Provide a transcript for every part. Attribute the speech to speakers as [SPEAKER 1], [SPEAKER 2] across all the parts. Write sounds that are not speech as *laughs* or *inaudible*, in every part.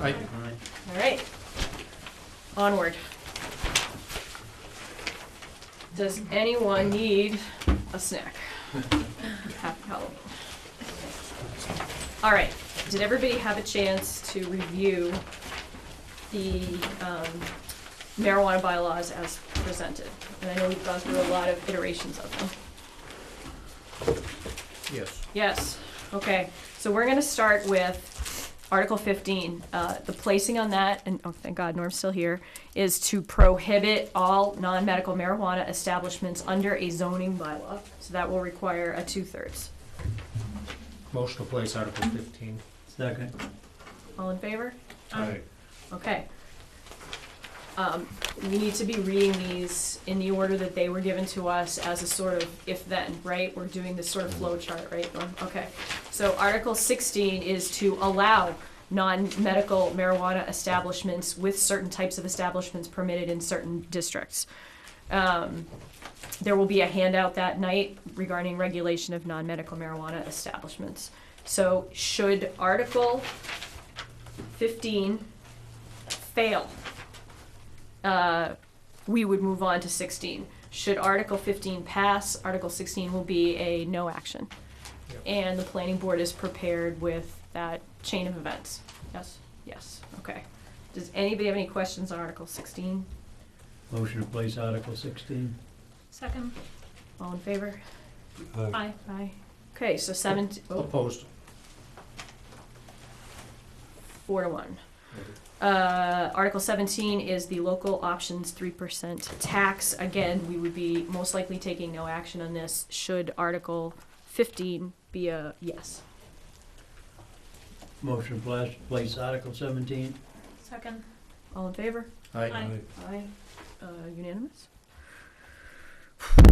[SPEAKER 1] Aye.
[SPEAKER 2] All right. Onward. Does anyone need a snack? *laughs* Happy Halloween. All right. Did everybody have a chance to review the um, marijuana bylaws as presented? And I know we've gone through a lot of iterations of them.
[SPEAKER 1] Yes.
[SPEAKER 2] Yes, okay, so we're gonna start with Article fifteen, uh, the placing on that, and, oh, thank God Norm's still here, is to prohibit all non-medical marijuana establishments under a zoning bylaw, so that will require a two-thirds.
[SPEAKER 1] Motion to place Article fifteen.
[SPEAKER 3] Second.
[SPEAKER 2] All in favor?
[SPEAKER 1] Aye.
[SPEAKER 2] Okay. Um, we need to be reading these in the order that they were given to us as a sort of if-then, right? We're doing this sort of flow chart, right, Norm? Okay. So Article sixteen is to allow non-medical marijuana establishments with certain types of establishments permitted in certain districts. Um, there will be a handout that night regarding regulation of non-medical marijuana establishments. So should Article fifteen fail, uh, we would move on to 16. Should Article 15 pass, Article 16 will be a no action.
[SPEAKER 1] Yep.
[SPEAKER 2] And the planning board is prepared with that chain of events. Yes, yes, okay. Does anybody have any questions on Article 16?
[SPEAKER 3] Motion to place Article sixteen.
[SPEAKER 2] Second. All in favor?
[SPEAKER 4] Aye.
[SPEAKER 2] Aye. Okay, so seven, oh,
[SPEAKER 1] Opposed.
[SPEAKER 2] four to one. Uh, Article 17 is the local options 3% tax. Again, we would be most likely taking no action on this should Article 15 be a yes.
[SPEAKER 3] Motion to plas- place Article seventeen.
[SPEAKER 2] Second. All in favor?
[SPEAKER 1] Aye.
[SPEAKER 2] Aye. Uh, unanimous?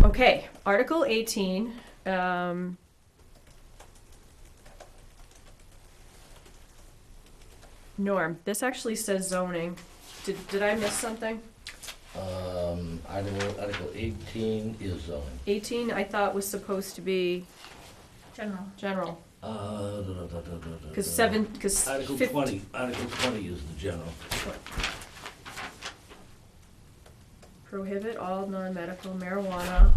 [SPEAKER 2] Okay, Article 18, um. Norm, this actually says zoning. Did, did I miss something?
[SPEAKER 5] Um, Article, Article eighteen is zoning.
[SPEAKER 2] 18, I thought was supposed to be. General. General,
[SPEAKER 5] Uh, da, da, da, da, da, da,
[SPEAKER 2] because
[SPEAKER 5] da.
[SPEAKER 2] seven, because.
[SPEAKER 5] Article twenty, Article twenty is the general.
[SPEAKER 2] Prohibit all non-medical marijuana,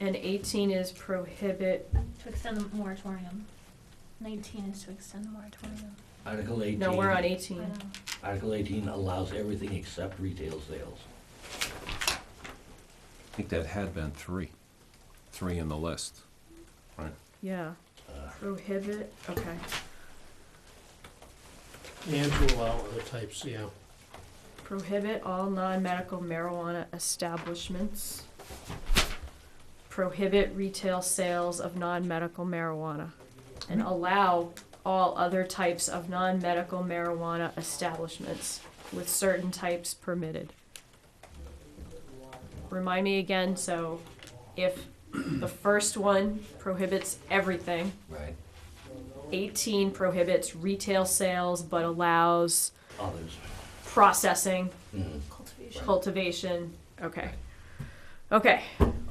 [SPEAKER 2] and 18 is prohibit,
[SPEAKER 6] To extend the moratorium. Nineteen is to extend the moratorium.
[SPEAKER 5] Article eighteen.
[SPEAKER 2] no, we're on
[SPEAKER 6] I
[SPEAKER 2] 18.
[SPEAKER 6] know.
[SPEAKER 5] Article eighteen allows everything except retail sales.
[SPEAKER 4] I think that had been three, three in the list.
[SPEAKER 2] Yeah,
[SPEAKER 5] Uh,
[SPEAKER 2] prohibit, okay.
[SPEAKER 1] And to allow other types, yeah.
[SPEAKER 2] Prohibit all non-medical marijuana establishments. Prohibit retail sales of non-medical marijuana. And allow all other types of non-medical marijuana establishments with certain types permitted. Remind me again, so if the first one prohibits everything,
[SPEAKER 5] Right,
[SPEAKER 2] eighteen prohibits retail sales but allows
[SPEAKER 5] others.
[SPEAKER 2] processing
[SPEAKER 5] Mhm.
[SPEAKER 6] Cultivation.
[SPEAKER 2] cultivation, okay. Okay,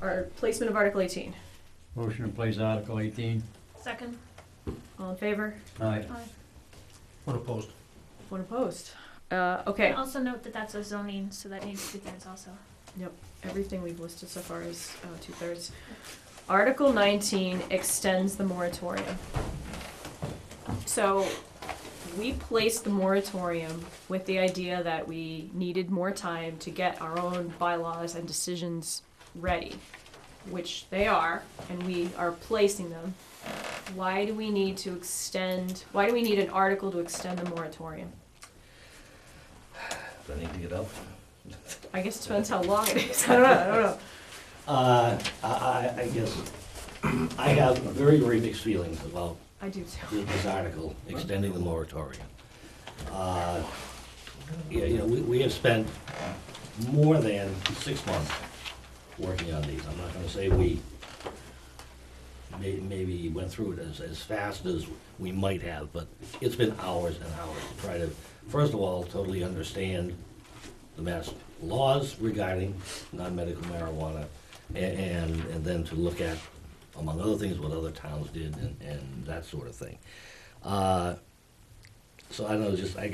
[SPEAKER 2] our placement of Article eighteen,
[SPEAKER 3] Motion to place Article eighteen.
[SPEAKER 6] Second.
[SPEAKER 2] all in favor,
[SPEAKER 3] Aye.
[SPEAKER 6] Aye.
[SPEAKER 1] One opposed.
[SPEAKER 2] one opposed. Uh, okay,
[SPEAKER 6] Also note that that's a zoning, so that needs to be there also.
[SPEAKER 2] everything we've listed so far is, uh, two-thirds. Article nineteen extends the moratorium. So, we placed the moratorium with the idea that we needed more time to get our own bylaws and decisions ready, which they are, and we are placing them. Why do we need to extend, why do we need an article to extend the moratorium?
[SPEAKER 5] Do I need to get up?
[SPEAKER 2] I guess it depends how long it is, *laughs* I don't know, I don't know.
[SPEAKER 5] Uh, I, I, I guess, *clears throat* I have very, very mixed feelings about
[SPEAKER 2] I do too.
[SPEAKER 5] with this article, extending the moratorium. Uh, Yeah, you know, we, we have spent more than six months working on these. I'm not gonna say we may, maybe went through it as, as fast as we might have, but it's been hours and hours to try to, first of all, totally understand the mass laws regarding non-medical marijuana, a- and, and then to look at, among other things, what other towns did and, and that sort of thing. Uh, So I don't know, just, I